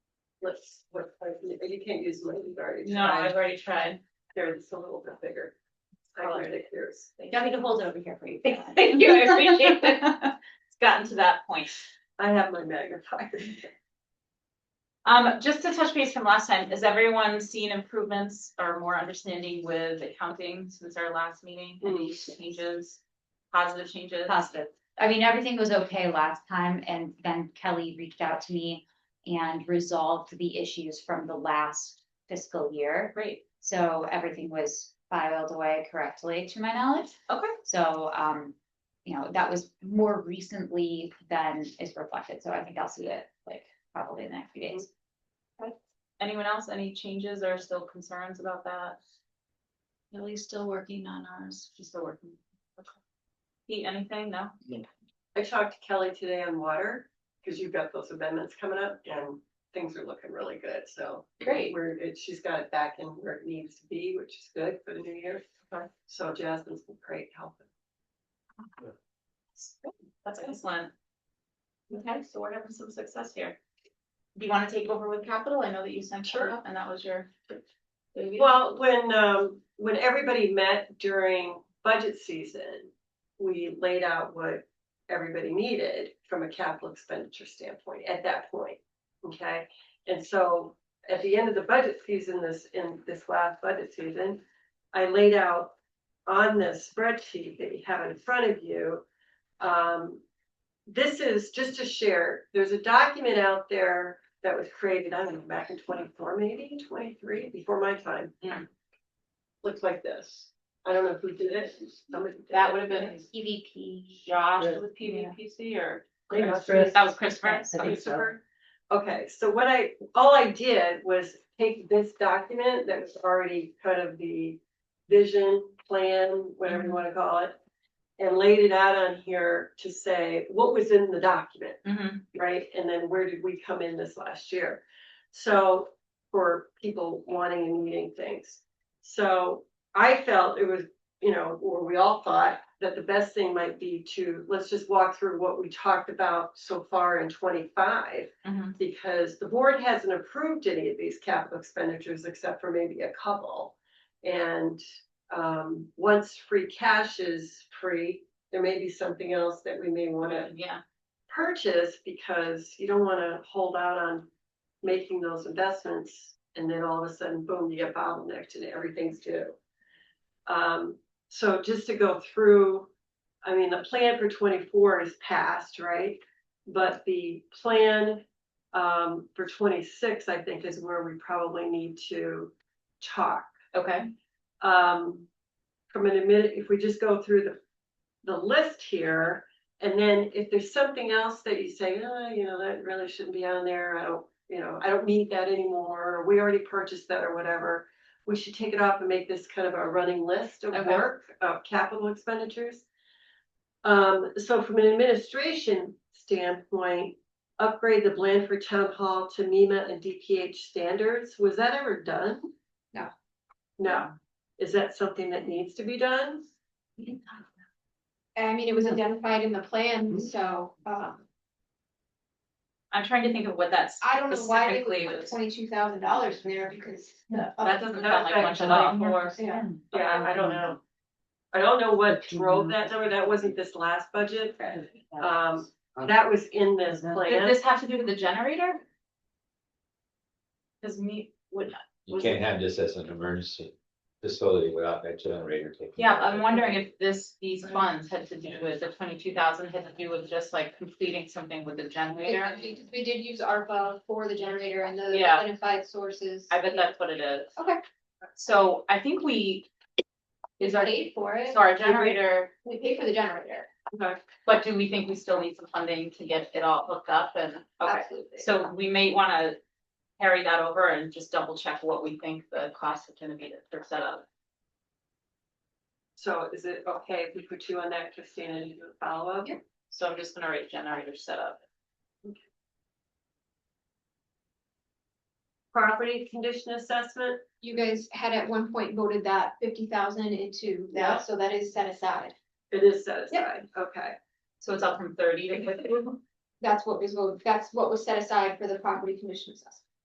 Let's, what, like, you you can't use one you've already No, I've tried, already tried. they're just a little bit bigger. I Oh. granted yours. You want me to hold it over here for you? Thank you, I appreciate it. It's gotten to that point. I have my magnifier. Um, just to touch base from last time, has everyone seen improvements or more understanding with accounting since our last meeting? Any changes, positive changes? Positive. I mean, everything was okay last time and then Kelly reached out to me and resolved the issues from the last fiscal year. Great, So everything was filed away correctly to my knowledge. okay, So, um, you know, that was more recently than is reflected. So I think I'll see it like probably in the next few days. anyone else, any changes or still concerns about that? Lily's still working on ours. She's still working. Okay. Pete, anything? No? I talked to Kelly today on water, because you've got those amendments coming up and things are looking really good, so. Great. Where it, she's got it back in where it needs to be, which is good for the new year. Okay. So Jasmine's been great helping. That's excellent. Okay, so we're having some success here. Do you want to take over with capital? I know that you sent her Sure. up and that was your. baby. Well, when, um, when everybody met during budget season, we laid out what everybody needed from a capital expenditure standpoint at that point, okay? And so at the end of the budget season, this, in this last budget season, I laid out on the spreadsheet that you have in front of you. Um, this is just to share, there's a document out there that was created, I don't know, back in twenty-four, maybe twenty-three, before my time. Mm. Looks like this. I don't know who did it. Somebody did That it. would have been E EVP. Josh Yeah. with PVPC or They must be- that was Christopher. I think so. Christopher. Okay, so what I, all I did was take this document that was already kind of the vision, plan, whatever you wanna call it. And laid it out on here to say what was in the document, Mhm. right? And then where did we come in this last year? So for people wanting and needing things. So I felt it was, you know, or we all thought that the best thing might be to, let's just walk through what we talked about so far in twenty-five Mhm. because the board hasn't approved any of these capital expenditures except for maybe a couple. And um, once free cash is free, there may be something else that we may want to Yeah, purchase because you don't want to hold out on making those investments and then all of a sudden, boom, you get bottlenecked and everything's due. Um, so just to go through, I mean, the plan for twenty-four is passed, right? But the plan um for twenty-six, I think, is where we probably need to talk. okay, Um, from an admin, if we just go through the, the list here. And then if there's something else that you say, oh, you know, that really shouldn't be on there, I don't, you know, I don't need that anymore, or we already purchased that or whatever. We should take it off and make this kind of a running list of Okay. work, of capital expenditures. Um, so from an administration standpoint, upgrade the Blandford Town Hall to MEMA and DPH standards, was that ever done? No. No, is that something that needs to be done? I mean, it was identified in the plan, so, uh, I'm trying to think of what that's I don't know why they specifically would put was. twenty-two thousand dollars in there because. the- That doesn't sound like That's much at all actually- for. Yeah. Yeah, I don't know. Um, I don't know what drove that number. That wasn't this last budget. Um, that was in this Did plan. this have to do with the generator? Cause me, would, You can't have this as an emergency facility without that generator taking. yeah, I'm wondering if this, these funds had to do with the twenty-two thousand, had to do with just like completing something with the generator. We we did use ARPA for the generator and the Yeah. identified sources. I bet that's what it is. Okay. So I think we. Is our, Paid for it. so our generator, We paid for the generator, but do we think we still need some funding to get it all hooked up and, okay, absolutely. so we may wanna. Carry that over and just double check what we think the cost is gonna be to- for setup. So is it okay if we put you on that, Christina, to do a follow-up? Yeah. So I'm just gonna write generator setup. Property condition assessment? You guys had at one point voted that fifty thousand into Yeah. that, so that is set aside. It is set aside. Okay. So it's up from thirty to fifty. That's what was voted, that's what was set aside for the property commission assessment.